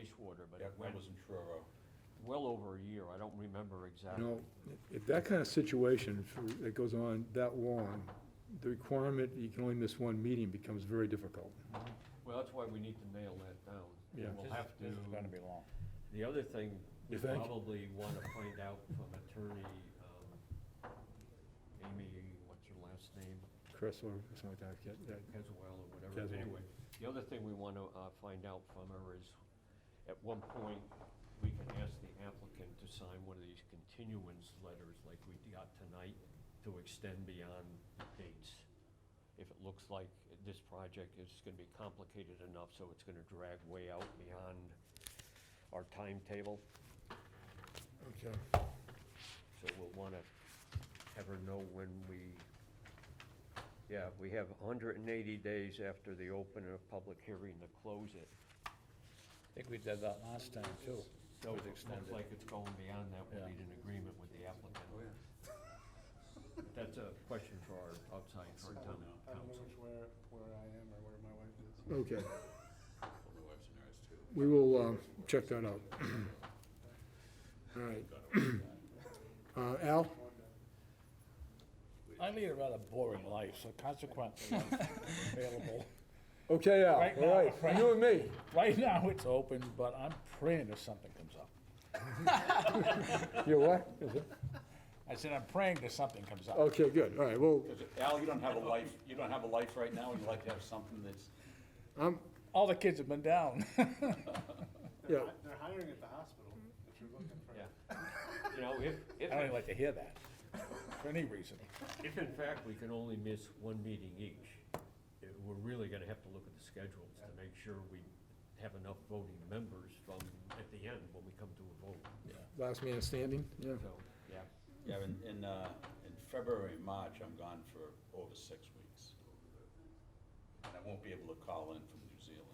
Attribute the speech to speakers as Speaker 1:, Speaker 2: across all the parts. Speaker 1: murder, but it
Speaker 2: That
Speaker 1: went
Speaker 2: was in Truro.
Speaker 1: well over a year. I don't remember
Speaker 3: You
Speaker 1: exactly.
Speaker 3: know, if that kind of situation for- that goes on that long, the requirement, you can only miss one meeting becomes very difficult.
Speaker 1: Well, that's why we need to nail that down.
Speaker 3: Yeah.
Speaker 1: And we'll
Speaker 2: This
Speaker 1: have
Speaker 2: is-
Speaker 1: to,
Speaker 2: This is gonna be long.
Speaker 1: the other thing, we
Speaker 3: You think?
Speaker 1: probably want to find out from attorney, um, Amy, what's her last name?
Speaker 3: Chris or something like that, get that.
Speaker 1: Caswell or whatever,
Speaker 3: Caswell.
Speaker 1: anyway. The other thing we want to find out from her is, at one point, we can ask the applicant to sign one of these continuance letters like we got tonight to extend beyond dates. If it looks like this project is going to be complicated enough, so it's going to drag way out beyond our timetable.
Speaker 3: Okay.
Speaker 1: So we'll want to ever know when we, yeah, we have 180 days after the opening of public hearing to close it.
Speaker 2: I think we did that last time too.
Speaker 1: So
Speaker 2: was
Speaker 1: if it looks
Speaker 2: extended.
Speaker 1: like it's going beyond that, we'll
Speaker 2: Yeah.
Speaker 1: need an agreement with the applicant. But That's a question for our outside, for our town
Speaker 4: I don't know
Speaker 1: council.
Speaker 4: which where, where I am or where my wife is.
Speaker 3: Okay,
Speaker 5: Well, my wife's a nurse too.
Speaker 3: we will um, check that out. All right. Uh, Al?
Speaker 2: I lead a rather boring life, so consequently, I'm available.
Speaker 3: Okay, Al,
Speaker 2: Right
Speaker 3: all
Speaker 2: now, right-
Speaker 3: right, you and me.
Speaker 2: Right now, it's open, but I'm praying if something comes up.
Speaker 3: You what?
Speaker 2: I said, I'm praying that something comes up.
Speaker 3: Okay, good, all right, well,
Speaker 6: Al, you don't have a life, you don't have a life right now, and you like to have something that's,
Speaker 2: All the kids have been down.
Speaker 4: They're,
Speaker 3: Yeah.
Speaker 4: hi- they're hiring at the hospital if you're looking for.
Speaker 1: Yeah. You know, if,
Speaker 2: I don't
Speaker 1: if,
Speaker 2: even like to hear that, for any reason.
Speaker 1: if in fact we can only miss one meeting each, it- we're really gonna have to look at the schedules to make sure we have enough voting members from, at the end, when we come to a vote.
Speaker 3: last man standing, yeah.
Speaker 1: So, yeah,
Speaker 6: yeah, in, in, uh, in February, and March, I'm gone for over six weeks. And I won't be able to call in from New Zealand.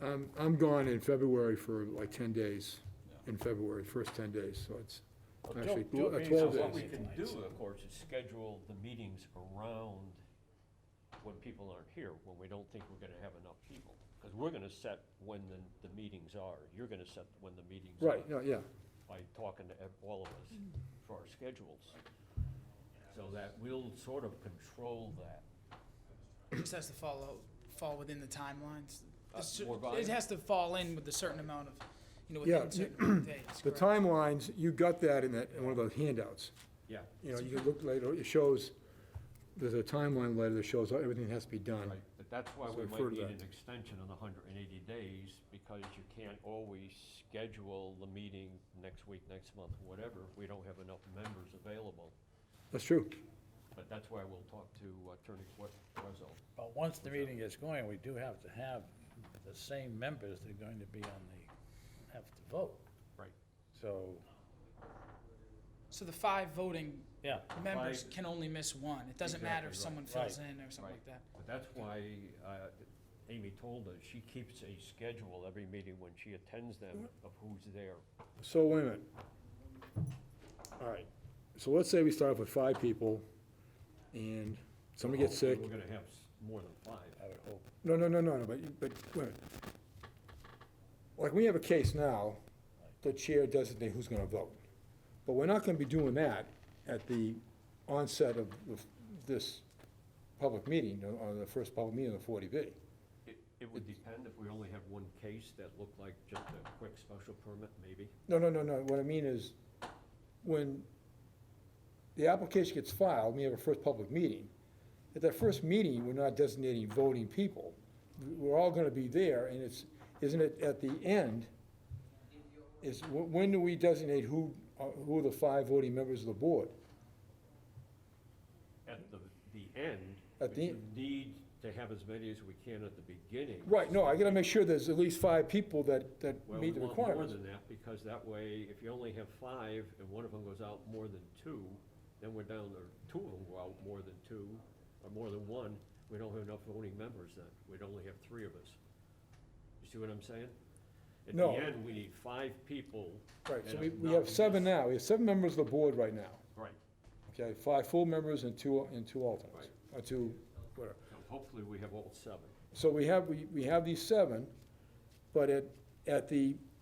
Speaker 3: I'm, Um, I'm gone in February for like 10 days,
Speaker 6: Yeah.
Speaker 3: in February, first 10 days, so it's
Speaker 1: Oh,
Speaker 2: Well,
Speaker 3: actually
Speaker 2: don't- don't
Speaker 3: uh,
Speaker 2: be
Speaker 3: 12
Speaker 2: so
Speaker 1: What
Speaker 3: days.
Speaker 1: we can do, of course, is schedule the meetings around when people aren't here, when we don't think we're gonna have enough people. Because we're gonna set when the, the meetings are, you're gonna set when the meetings are.
Speaker 3: Right, no, yeah,
Speaker 1: By talking to ev- all of us for our schedules. So that we'll sort of control that.
Speaker 7: just has to follow, fall within the timelines.
Speaker 1: Uh,
Speaker 7: A cer-
Speaker 1: more volume?
Speaker 7: It has to fall in with a certain amount of, you know,
Speaker 3: Yeah,
Speaker 7: within a certain amount of days.
Speaker 3: the
Speaker 7: correct.
Speaker 3: timelines, you got that in that, in one of those handouts.
Speaker 1: Yeah.
Speaker 3: You know, you can look later, it shows, there's a timeline later that shows everything has to be done.
Speaker 1: Right, but that's why
Speaker 3: So
Speaker 1: we
Speaker 3: I
Speaker 1: might
Speaker 3: refer to
Speaker 1: need an
Speaker 3: that.
Speaker 1: extension of the hundred and eighty days, because you can't always schedule the meeting next week, next month, whatever, if we don't have enough members available.
Speaker 3: That's true.
Speaker 1: But that's why we'll talk to Attorney Quazell.
Speaker 2: But once the meeting is going, we do have to have the same members that are going to be on the, have to vote.
Speaker 1: Right.
Speaker 2: So,
Speaker 7: So the five voting
Speaker 2: yeah,
Speaker 7: members
Speaker 1: Five.
Speaker 7: can only miss one. It doesn't matter if
Speaker 1: Exactly,
Speaker 7: someone fills
Speaker 2: Right.
Speaker 7: in or something like that.
Speaker 1: But that's why uh, Amy told us, she keeps a schedule every meeting when she attends them of who's there.
Speaker 3: So wait a minute. All right, so let's say we start off with five people, and somebody gets
Speaker 1: Hopefully
Speaker 3: sick.
Speaker 1: We're gonna have s- more than five.
Speaker 2: I would hope.
Speaker 3: No, no, no, no, no, but, but, wait a minute. Like, we have a case now, the chair designates who's gonna vote. But we're not gonna be doing that at the onset of the- this public meeting, or- or the first public meeting of the forty B.
Speaker 1: It- It would depend if we only have one case that looked like just a quick special permit, maybe.
Speaker 3: No, no, no, no, what I mean is, when the application gets filed, we have a first public meeting. At that first meeting, we're not designating voting people. We're all gonna be there, and it's, isn't it at the end? Is, wh- when do we designate who, uh, who are the five voting members of the board?
Speaker 1: at the, the end.
Speaker 3: At
Speaker 1: but
Speaker 3: the-
Speaker 1: You need to have as many as we can at the beginning.
Speaker 3: Right, no, I gotta make sure there's at least five people that, that
Speaker 1: Well,
Speaker 3: meet
Speaker 1: we
Speaker 3: the
Speaker 1: want more
Speaker 3: requirements.
Speaker 1: than that, because that way, if you only have five and one of them goes out more than two, then we're down, or two of them go out more than two, or more than one, we don't have enough voting members then. We'd only have three of us. You see what I'm saying?
Speaker 3: No.
Speaker 1: At the end, we need five people.
Speaker 3: Right,
Speaker 1: that
Speaker 3: so we, we
Speaker 1: not
Speaker 3: have seven
Speaker 1: missed.
Speaker 3: now, we have seven members of the board right now,
Speaker 1: Right.
Speaker 3: okay? Five full members and two, and two alternates, or two, whatever.
Speaker 1: So Hopefully, we have all seven.
Speaker 3: So we have, we we have these seven, but at, at the